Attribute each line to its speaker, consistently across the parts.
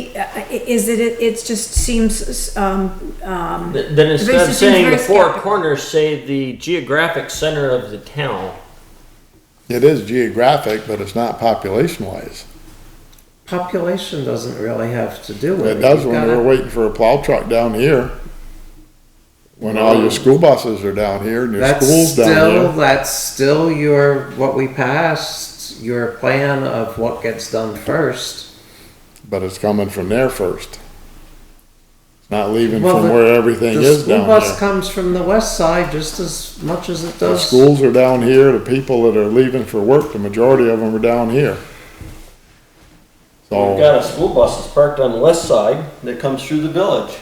Speaker 1: uh, Is it, it it's just seems, um, um,
Speaker 2: Th- Then instead of
Speaker 1: seems
Speaker 2: saying
Speaker 1: very
Speaker 2: the four
Speaker 1: skeptical.
Speaker 2: corners, say the geographic center of the town.
Speaker 3: It is geographic, but it's not population wise.
Speaker 4: Population doesn't really have to do with it.
Speaker 3: It does
Speaker 4: You've
Speaker 3: when
Speaker 4: gotta-
Speaker 3: we're waiting for a plow truck down here. When all your school buses are down here and your
Speaker 4: That's
Speaker 3: school's
Speaker 4: still,
Speaker 3: down
Speaker 4: that's still your, what we passed, your plan of what gets done first.
Speaker 3: here, but it's coming from there first. It's Not leaving
Speaker 4: Well,
Speaker 3: from
Speaker 4: the-
Speaker 3: where everything
Speaker 4: The
Speaker 3: is
Speaker 4: school
Speaker 3: down
Speaker 4: bus
Speaker 3: here.
Speaker 4: comes from the west side just as much as it
Speaker 3: The
Speaker 4: does.
Speaker 3: schools are down here, the people that are leaving for work, the majority of them are down here.
Speaker 5: We've
Speaker 3: So,
Speaker 5: got a school bus that's parked on the west side that comes through the village.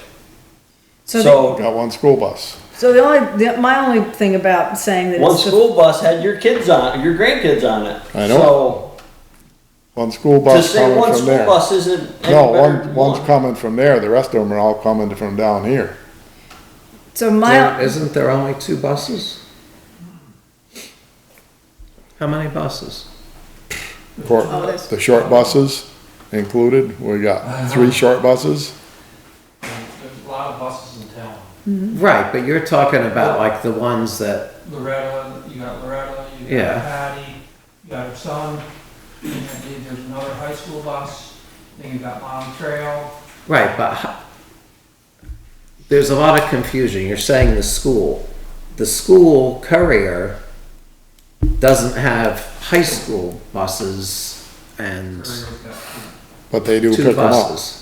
Speaker 1: so, the-
Speaker 5: So
Speaker 3: got one school bus.
Speaker 1: so the only, the- my only thing about saying that
Speaker 5: one
Speaker 1: it's just
Speaker 5: school bus had your kids on, your grandkids on it.
Speaker 3: I know.
Speaker 5: So
Speaker 3: One school
Speaker 5: to
Speaker 3: bus
Speaker 5: say one
Speaker 3: coming from
Speaker 5: school
Speaker 3: there.
Speaker 5: bus isn't any
Speaker 3: No,
Speaker 5: better
Speaker 3: one,
Speaker 5: than
Speaker 3: one's
Speaker 5: one.
Speaker 3: coming from there, the rest of them are all coming from down here.
Speaker 1: So
Speaker 4: There-
Speaker 1: my,
Speaker 4: Isn't there only two buses? How many buses?
Speaker 3: For
Speaker 1: Oh, that's-
Speaker 3: the short buses included, we
Speaker 4: Uh-huh.
Speaker 3: got three short buses.
Speaker 6: There's a lot of buses in town.
Speaker 4: Right, but you're talking about like the ones that,
Speaker 6: Loretta, you got Loretta, you got
Speaker 4: Yeah.
Speaker 6: Patty, you got her son, and then there's another high school bus, then you got Mom Trail.
Speaker 4: right, but ho- there's a lot of confusion. You're saying the school. The school courier doesn't have high school buses and
Speaker 6: Trail's got two.
Speaker 3: But they do
Speaker 4: two
Speaker 3: pick them up.
Speaker 4: buses.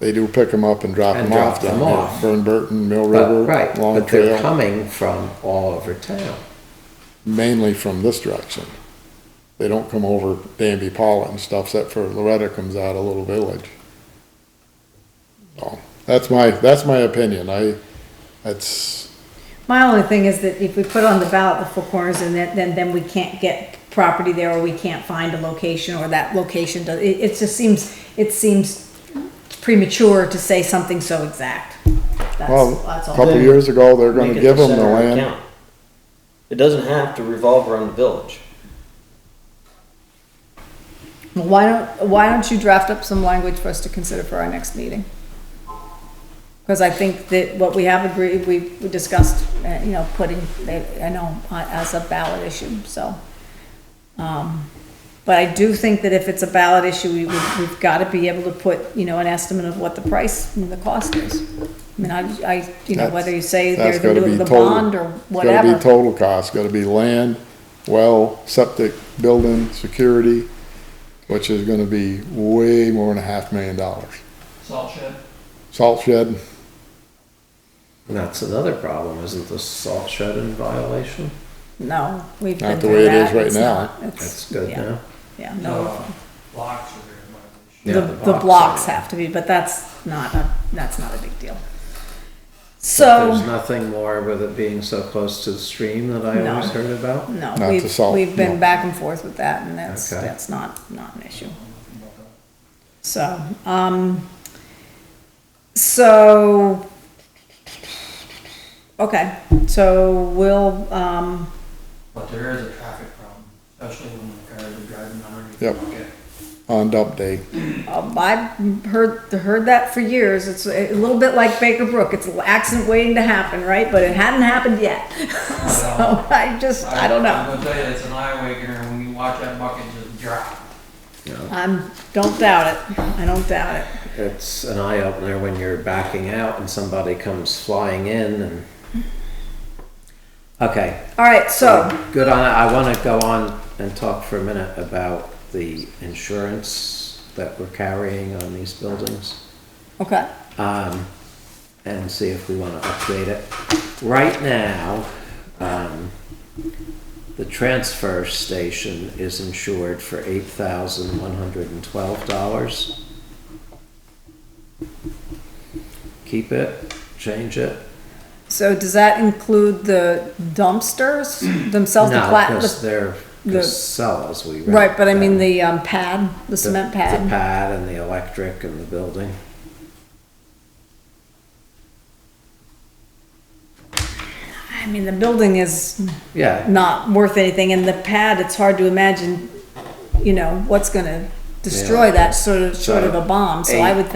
Speaker 3: They do pick them up and drop
Speaker 4: And
Speaker 3: them off
Speaker 4: drop
Speaker 3: down
Speaker 4: them
Speaker 3: here.
Speaker 4: off.
Speaker 3: Burn Burton, Mill
Speaker 4: But,
Speaker 3: River,
Speaker 4: right,
Speaker 3: Long
Speaker 4: but they're
Speaker 3: Trail,
Speaker 4: coming from all over town.
Speaker 3: mainly from this direction. They don't come over Danby Paula and stuff, except for Loretta comes out of Little Village. So, that's my, that's my opinion. I, that's,
Speaker 1: my only thing is that if we put on the ballot the Four Corners and then, then, then we can't get property there or we can't find a location or that location does, it, it just seems, it seems premature to say something so exact.
Speaker 3: well,
Speaker 1: That's, that's
Speaker 3: a
Speaker 1: all.
Speaker 3: couple years ago, they're
Speaker 5: Make
Speaker 3: gonna
Speaker 5: it
Speaker 3: give them the
Speaker 5: center of
Speaker 3: land.
Speaker 5: town. It doesn't have to revolve around the village.
Speaker 1: Why don't, why don't you draft up some language for us to consider for our next meeting? Because I think that what we have agreed, we we discussed, uh, you know, putting, I know, uh, as a ballot issue, so. um, But I do think that if it's a ballot issue, we, we- we've got to be able to put, you know, an estimate of what the price and the cost is. I mean, I, I, you know,
Speaker 3: That's-
Speaker 1: whether you say they're
Speaker 3: That's
Speaker 1: gonna
Speaker 3: gotta
Speaker 1: do it
Speaker 3: be
Speaker 1: with a
Speaker 3: total.
Speaker 1: bond or
Speaker 3: It's Gotta
Speaker 1: whatever.
Speaker 3: be total cost, gotta be land, well, septic, building, security, which is gonna be way more than a half million dollars.
Speaker 6: Salt shed,
Speaker 3: Salt shed,
Speaker 4: And that's another problem, isn't the salt shed in violation?
Speaker 1: No, we've
Speaker 3: Not
Speaker 1: been
Speaker 3: the
Speaker 1: through
Speaker 3: way it is
Speaker 1: that,
Speaker 3: right
Speaker 1: it's
Speaker 3: now.
Speaker 1: not, it's-
Speaker 4: That's good
Speaker 1: yeah,
Speaker 4: now.
Speaker 1: Yeah, no.
Speaker 6: uh, blocks are there in violation.
Speaker 4: Yeah,
Speaker 1: the,
Speaker 4: the
Speaker 1: the
Speaker 4: blocks
Speaker 1: blocks
Speaker 4: are-
Speaker 1: have to be, but that's not a, that's not a big deal.
Speaker 4: There's
Speaker 1: So,
Speaker 4: nothing more with it being so close to the stream that I
Speaker 1: No.
Speaker 4: always heard about.
Speaker 1: no,
Speaker 3: Not to
Speaker 1: we've,
Speaker 3: solve,
Speaker 1: we've been
Speaker 3: no.
Speaker 1: back and forth with that and that's,
Speaker 4: Okay.
Speaker 1: that's not, not an issue. So, um, so, okay, so we'll, um,
Speaker 6: But there is a traffic problem, especially when the cars are driving underneath.
Speaker 3: Yep.
Speaker 6: Okay.
Speaker 3: on dump day,
Speaker 1: Um, I've heard, heard that for years. It's a little bit like Baker Brook. It's an accident waiting to happen, right? But it hadn't happened yet. So I just, I don't
Speaker 6: I'm
Speaker 1: know.
Speaker 6: gonna tell you, it's an eye waker, and when you watch that bucket just drop.
Speaker 1: I'm, don't doubt it. I don't doubt it.
Speaker 4: It's an eye opener when you're backing out and somebody comes flying in and. Okay,
Speaker 1: All right, so,
Speaker 4: good on, I wanna go on and talk for a minute about the insurance that we're carrying on these buildings.
Speaker 1: okay.
Speaker 4: um, and see if we want to update it. Right now, um, the transfer station is insured for eight thousand one hundred and twelve dollars. Keep it, change it.
Speaker 1: So does that include the dumpsters themselves? the
Speaker 4: No,
Speaker 1: pla-
Speaker 4: because
Speaker 1: the-
Speaker 4: they're
Speaker 1: the-
Speaker 4: Casellas, we. rent
Speaker 1: Right, but I mean
Speaker 4: them.
Speaker 1: the um, pad, the
Speaker 4: The-
Speaker 1: cement
Speaker 4: The
Speaker 1: pad.
Speaker 4: pad and the electric and the building.
Speaker 1: I mean, the building is
Speaker 4: Yeah,
Speaker 1: not worth anything and the pad, it's hard to imagine, you know, what's gonna destroy that sort of, sort of a bomb, so I
Speaker 4: Eight.
Speaker 1: would